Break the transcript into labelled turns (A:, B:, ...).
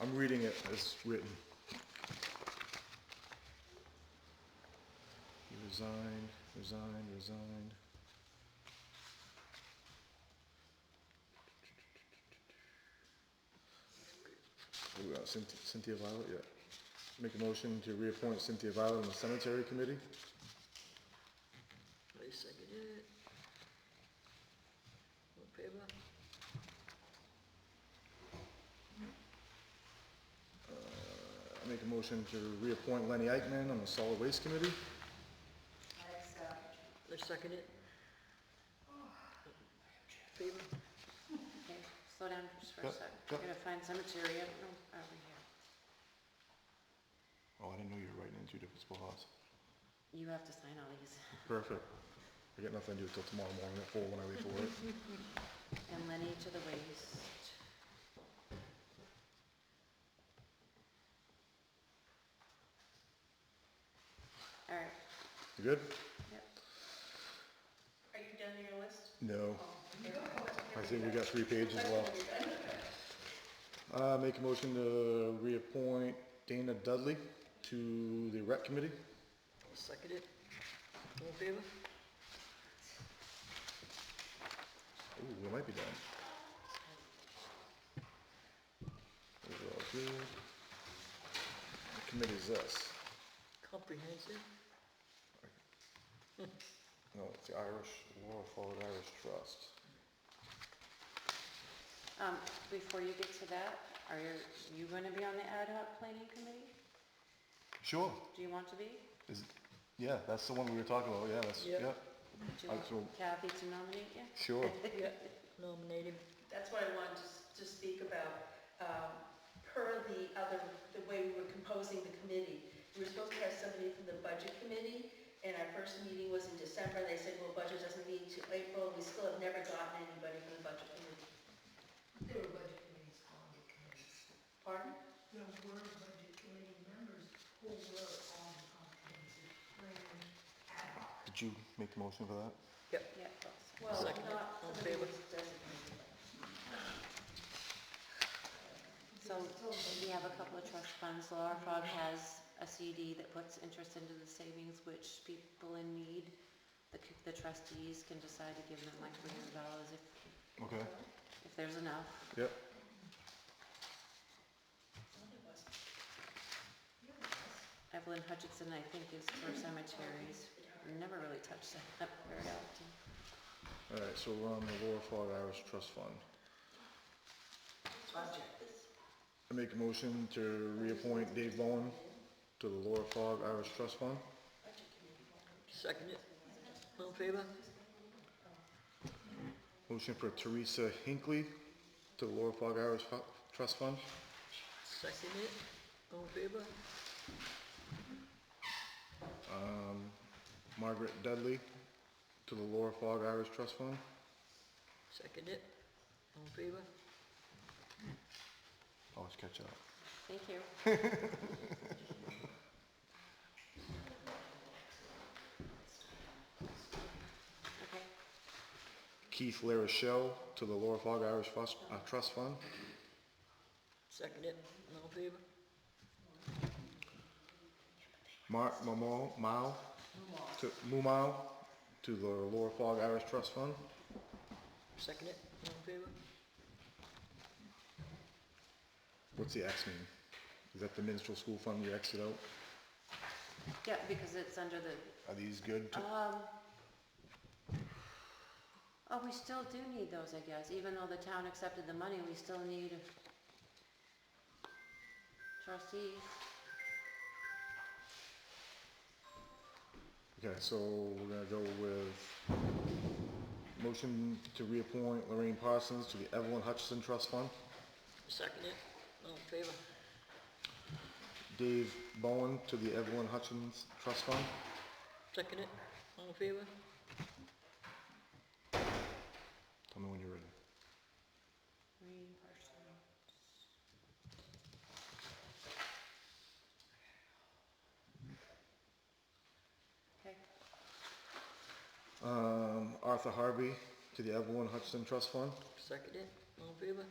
A: I'm reading it as written. He resigned, resigned, resigned. Who we got? Cynthia Cynthia Violet, yeah. Make a motion to reappoint Cynthia Violet on the cemetery committee?
B: I seconded it. All in favor?
A: I Uh, Make a motion to reappoint Lenny Eichman on the solid waste committee?
B: I second it. Favor?
C: Okay, slow down just for a
A: Yep,
C: sec.
A: yep.
C: Gotta find cemetery, I don't know, over here.
A: Oh, I didn't know you were writing in two different spots.
C: You have to sign all these.
A: Perfect. I got nothing to do till tomorrow morning at four when I leave for work.
C: And Lenny to the waste. All right,
A: You good?
C: yep.
D: Are you done your list? Oh,
A: No. I think we got three pages left. Uh, make a motion to reappoint Dana Dudley to the rep committee?
B: I second it. All in favor?
A: Ooh, we might be done. Those are all good. What committee is this?
B: Comprehensive?
A: No, it's the Irish, Laurel Forward Irish Trust.
C: Um, before you get to that, are you, you gonna be on the ad hoc planning committee?
A: Sure,
C: Do you want to be?
A: is, yeah, that's the one we were talking about, yeah, that's,
B: Yep.
A: yeah,
C: Do you
A: I
C: want
A: will-
C: Kathy to nominate you?
A: sure.
B: Yeah, nominated.
D: That's what I wanted to, s- to speak about. Um, Per the other, the way we were composing the committee, we were supposed to have somebody from the budget committee, and our first meeting was in December, they said, well, budget doesn't meet till April, we still have never gotten anybody from the budget committee.
E: There were budget committees on the committees.
D: Pardon?
E: There were budget committee members who were on the comprehensive plan ad hoc.
A: Did you make the motion for that?
C: Yep, that's-
D: Well,
B: Second.
D: not
B: All in
D: somebody
B: favor?
D: who's designated.
C: So we have a couple of trust funds. Laura Fogg has a CD that puts interest into the savings, which people in need, the, c- the trustees can decide to give them like three hundred dollars if,
A: Okay,
C: if there's enough.
A: yep.
C: Evelyn Hutchinson, I think, is for cemeteries. Never really touched that up very often.
A: All right, so we're on the Laura Florida Irish Trust Fund.
D: Budget.
A: I make a motion to reappoint Dave Bowen to the Laura Fogg Irish Trust Fund.
B: Second it. All in favor?
A: Motion for Teresa Hinckley to the Laura Fogg Irish Fu- Trust Fund.
B: Second it. All in favor?
A: Margaret Dudley to the Laura Fogg Irish Trust Fund.
B: Second it. All in favor?
A: Always catch up.
C: Thank you. Okay,
A: Keith LaRochelle to the Laura Fogg Irish Fus- uh, Trust Fund.
B: Second it. All in favor?
A: Mark Mamo, Mao, to, Mumau to the Laura Fogg Irish Trust Fund.
B: Second it. All in favor?
A: What's the X mean? Is that the minstrel school fund you exited out?
C: yeah, because it's under the
A: Are these good? to-
C: Um, oh, we still do need those, I guess, even though the town accepted the money, we still need a trustee.
A: Okay, so we're gonna go with motion to reappoint Lorraine Parsons to the Evelyn Hutchinson Trust Fund.
B: Second it. All in favor?
A: Dave Bowen to the Evelyn Hutchins Trust Fund.
B: Second it. All in favor?
A: Tell me when you're ready.
C: Three persons. Okay,
A: Um, Arthur Harvey to the Evelyn Hutchinson Trust Fund.
B: Second it. All in favor?